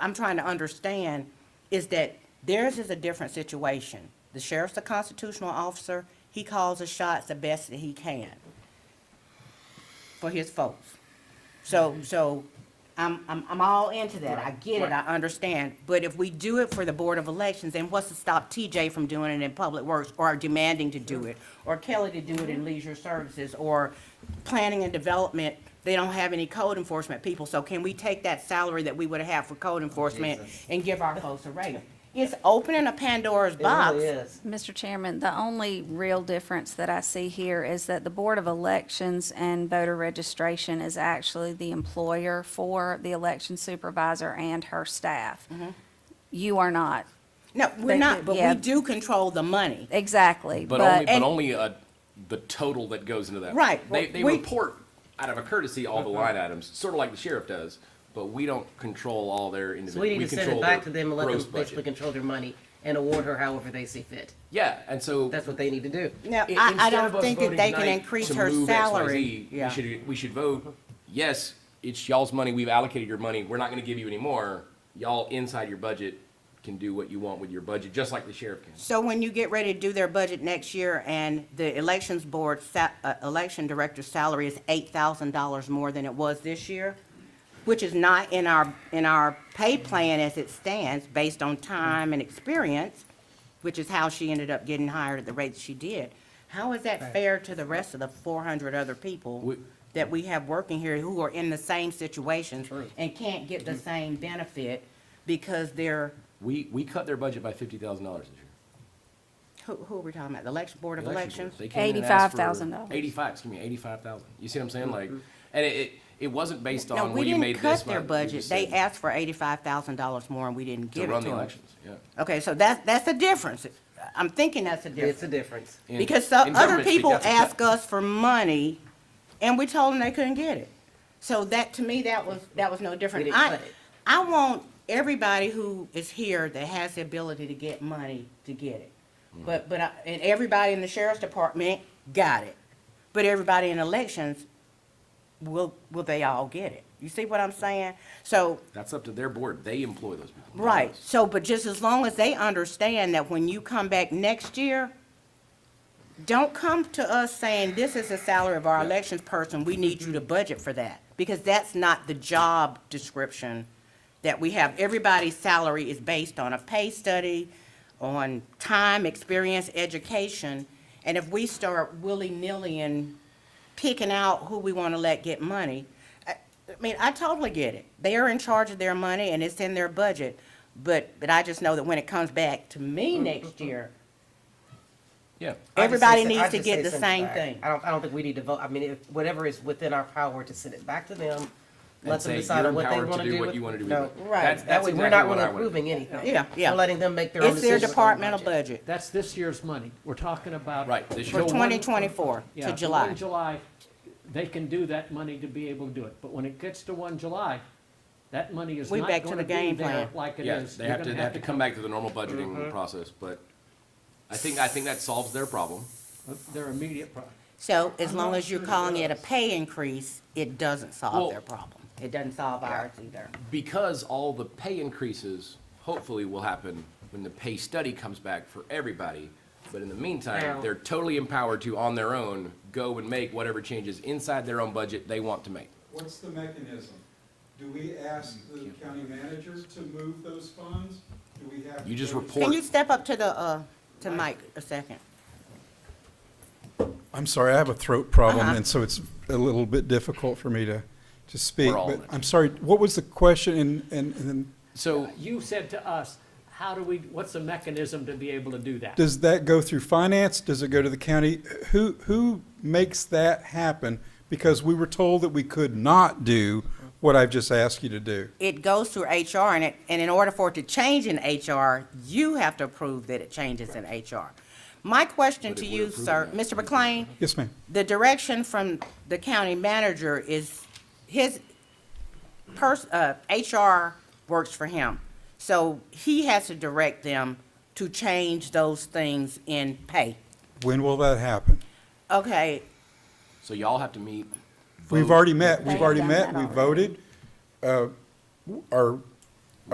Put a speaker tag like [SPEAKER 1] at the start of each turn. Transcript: [SPEAKER 1] I'm trying to understand is that theirs is a different situation. The sheriff's a constitutional officer, he calls the shots the best that he can for his folks. So, so I'm, I'm, I'm all into that. I get it, I understand. But if we do it for the Board of Elections, then what's to stop TJ from doing it in Public Works or demanding to do it? Or Kelly to do it in Leisure Services or Planning and Development? They don't have any code enforcement people, so can we take that salary that we would have for code enforcement and give our folks a raise? It's opening a Pandora's box.
[SPEAKER 2] is.
[SPEAKER 3] Mr. Chairman, the only real difference that I see here is that the Board of Elections and voter registration is actually the employer for the election supervisor and her staff.
[SPEAKER 4] Mm-hmm.
[SPEAKER 3] You are not,
[SPEAKER 1] No, we're
[SPEAKER 3] They-
[SPEAKER 1] not, but
[SPEAKER 3] yeah.
[SPEAKER 1] we do control the money.
[SPEAKER 3] exactly,
[SPEAKER 4] But only,
[SPEAKER 3] but,
[SPEAKER 4] but
[SPEAKER 1] and-
[SPEAKER 4] only uh, the total that goes into that.
[SPEAKER 1] Right,
[SPEAKER 4] They,
[SPEAKER 1] well,
[SPEAKER 4] they
[SPEAKER 1] we-
[SPEAKER 4] report out of a courtesy all the
[SPEAKER 2] Uh-huh.
[SPEAKER 4] line items, sort of like the sheriff does, but we don't control all their
[SPEAKER 2] So
[SPEAKER 4] individual.
[SPEAKER 2] we need to send it back to them and let them basically
[SPEAKER 4] budget.
[SPEAKER 2] control their money and award her however they see fit.
[SPEAKER 4] Yeah, and so.
[SPEAKER 2] That's what they need to do.
[SPEAKER 1] No, I,
[SPEAKER 4] i-
[SPEAKER 1] I
[SPEAKER 4] instead of
[SPEAKER 1] don't
[SPEAKER 4] us
[SPEAKER 1] think that
[SPEAKER 4] voting
[SPEAKER 1] they can
[SPEAKER 4] tonight
[SPEAKER 1] increase
[SPEAKER 4] to
[SPEAKER 1] her
[SPEAKER 4] move
[SPEAKER 1] salary.
[SPEAKER 4] XYZ,
[SPEAKER 1] Yeah.
[SPEAKER 4] We should, we should vote, yes, it's y'all's money, we've allocated your money, we're not gonna give you any more. Y'all inside your budget can do what you want with your budget, just like the sheriff can.
[SPEAKER 1] So when you get ready to do their budget next year and the elections board, sa- uh, election director's salary is eight thousand dollars more than it was this year, which is not in our, in our pay plan as it stands, based on time and experience, which is how she ended up getting hired at the rate she did. How is that fair to the rest of the four hundred other people
[SPEAKER 4] We-
[SPEAKER 1] that we have working here who are in the same situations and can't get the
[SPEAKER 4] Mm-hmm.
[SPEAKER 1] same benefit because they're
[SPEAKER 4] We, we cut their budget by fifty thousand dollars this year.
[SPEAKER 1] Who, who are we talking about? The election board of
[SPEAKER 4] election
[SPEAKER 1] elections?
[SPEAKER 4] boards. They came in and asked for
[SPEAKER 3] $85,000.
[SPEAKER 4] Eighty-five, excuse me, eighty-five thousand. You see what I'm saying? Like, and it, it, it wasn't based
[SPEAKER 1] Mm-hmm. No,
[SPEAKER 4] on, well,
[SPEAKER 1] we
[SPEAKER 4] you
[SPEAKER 1] didn't
[SPEAKER 4] made this
[SPEAKER 1] cut their
[SPEAKER 4] much. We
[SPEAKER 1] budget.
[SPEAKER 4] just
[SPEAKER 1] They
[SPEAKER 4] said
[SPEAKER 1] asked for eighty-five thousand dollars more and we didn't
[SPEAKER 4] To
[SPEAKER 1] give it to
[SPEAKER 4] run the
[SPEAKER 1] them.
[SPEAKER 4] elections, yeah.
[SPEAKER 1] Okay, so that's, that's a difference. I'm thinking that's a
[SPEAKER 2] It's
[SPEAKER 1] difference.
[SPEAKER 2] a difference.
[SPEAKER 4] In-
[SPEAKER 1] Because some
[SPEAKER 4] in
[SPEAKER 1] other
[SPEAKER 4] government speak,
[SPEAKER 1] people
[SPEAKER 4] that's a cut.
[SPEAKER 1] ask us for money and we told them they couldn't get it. So that, to me, that was, that was no different.
[SPEAKER 2] didn't
[SPEAKER 1] I,
[SPEAKER 2] cut it.
[SPEAKER 1] I want everybody who is here that has the ability to get money to get it.
[SPEAKER 4] Mm-hmm.
[SPEAKER 1] But, but, I- and everybody in the sheriff's department got it. But everybody in elections, will, will they all get it? You see what I'm saying? So,
[SPEAKER 4] That's up to their board. They employ those people. not
[SPEAKER 1] right,
[SPEAKER 4] us.
[SPEAKER 1] so, but just as long as they understand that when you come back next year, don't come to us saying, this is the salary of our elections person, we need you to budget for that. Because that's not the job description that we have. Everybody's salary is based on a pay study, on time, experience, education. And if we start willy-nilly and picking out who we want to let get money, I, I mean, I totally get it. They are in charge of their money and it's in their budget. But, but I just know that when it comes back to me
[SPEAKER 2] Mm-hmm.
[SPEAKER 1] next year,
[SPEAKER 4] Yeah.
[SPEAKER 2] I just
[SPEAKER 1] Everybody
[SPEAKER 2] say-
[SPEAKER 1] needs
[SPEAKER 2] I
[SPEAKER 1] to
[SPEAKER 2] just
[SPEAKER 1] get
[SPEAKER 2] say
[SPEAKER 1] the
[SPEAKER 2] send it
[SPEAKER 1] same
[SPEAKER 2] back.
[SPEAKER 1] thing.
[SPEAKER 2] I don't, I don't think we need to vote, I mean, if, whatever is within our power to send it back to them, let them
[SPEAKER 4] say,
[SPEAKER 2] decide
[SPEAKER 4] "You're
[SPEAKER 2] on what they
[SPEAKER 4] empowered to
[SPEAKER 2] wanna
[SPEAKER 4] do
[SPEAKER 2] do
[SPEAKER 4] what
[SPEAKER 2] with.
[SPEAKER 4] you wanna do with
[SPEAKER 2] No.
[SPEAKER 4] it."
[SPEAKER 1] Right.
[SPEAKER 4] That's-
[SPEAKER 2] That
[SPEAKER 4] that's
[SPEAKER 2] way, we're
[SPEAKER 4] exactly
[SPEAKER 2] not
[SPEAKER 4] what
[SPEAKER 2] really
[SPEAKER 4] I wanted.
[SPEAKER 2] approving anything.
[SPEAKER 1] Yeah, yeah.
[SPEAKER 2] We're letting them make their own
[SPEAKER 1] it's
[SPEAKER 2] decisions.
[SPEAKER 1] their
[SPEAKER 2] on
[SPEAKER 1] departmental
[SPEAKER 2] budget.
[SPEAKER 1] budget
[SPEAKER 5] That's this year's money. We're talking about.
[SPEAKER 4] Right, this
[SPEAKER 5] the
[SPEAKER 4] year.
[SPEAKER 1] for
[SPEAKER 4] So
[SPEAKER 5] one-
[SPEAKER 1] twenty twenty-four
[SPEAKER 5] Yeah,
[SPEAKER 1] to
[SPEAKER 5] the
[SPEAKER 1] July.
[SPEAKER 5] one July, they can do that money to be able to do it. But when it gets to one July, that money is
[SPEAKER 1] We
[SPEAKER 5] not
[SPEAKER 1] back to
[SPEAKER 5] gonna
[SPEAKER 1] the game
[SPEAKER 5] be there
[SPEAKER 1] plan.
[SPEAKER 5] like it
[SPEAKER 4] Yeah,
[SPEAKER 5] is.
[SPEAKER 4] they
[SPEAKER 5] You're
[SPEAKER 4] have
[SPEAKER 5] gonna
[SPEAKER 4] to, they have to come back to the normal
[SPEAKER 5] Mm-hmm.
[SPEAKER 4] budgeting process, but I think, I think that solves their problem.
[SPEAKER 5] Their immediate problem.
[SPEAKER 1] So as long as you're calling it a pay increase, it doesn't solve their problem. It doesn't solve ours either.
[SPEAKER 4] because all the pay increases hopefully will happen when the pay study comes back for everybody. But in the
[SPEAKER 2] Now-
[SPEAKER 4] meantime, they're totally empowered to, on their own, go and make whatever changes inside their own budget they want to make.
[SPEAKER 6] What's the mechanism? Do we ask
[SPEAKER 4] Mm,
[SPEAKER 6] the county manager to move those funds? Do we have?
[SPEAKER 4] You
[SPEAKER 6] to
[SPEAKER 4] just
[SPEAKER 6] go to-
[SPEAKER 4] report
[SPEAKER 1] Can you step up to the, uh, to Mike a second?
[SPEAKER 7] I'm sorry, I have a throat problem, and so it's a little bit difficult for me to, to speak.
[SPEAKER 4] We're all
[SPEAKER 7] But
[SPEAKER 4] in it.
[SPEAKER 7] I'm sorry, what was the question? And, and, and then
[SPEAKER 4] So,
[SPEAKER 5] You said to us, how do we, what's the mechanism to be able to do that?
[SPEAKER 7] does that go through finance? Does it go to the county? Who, who makes that happen? Because we were told that we could not do what I've just asked you to do.
[SPEAKER 1] It goes through HR and it, and in order for it to change in HR, you have to approve that it changes in HR. My question to you, sir, Mr. McLean,
[SPEAKER 7] Yes, ma'am.
[SPEAKER 1] the direction from the county manager is his pers- uh, HR works for him. So he has to direct them to change those things in pay.
[SPEAKER 7] When will that happen?
[SPEAKER 1] Okay,
[SPEAKER 4] so y'all have to meet.
[SPEAKER 7] We've
[SPEAKER 4] vote.
[SPEAKER 7] already met,
[SPEAKER 3] They've
[SPEAKER 7] we've already
[SPEAKER 3] done
[SPEAKER 7] met,
[SPEAKER 3] that
[SPEAKER 7] we
[SPEAKER 3] already.
[SPEAKER 7] voted. Uh, Our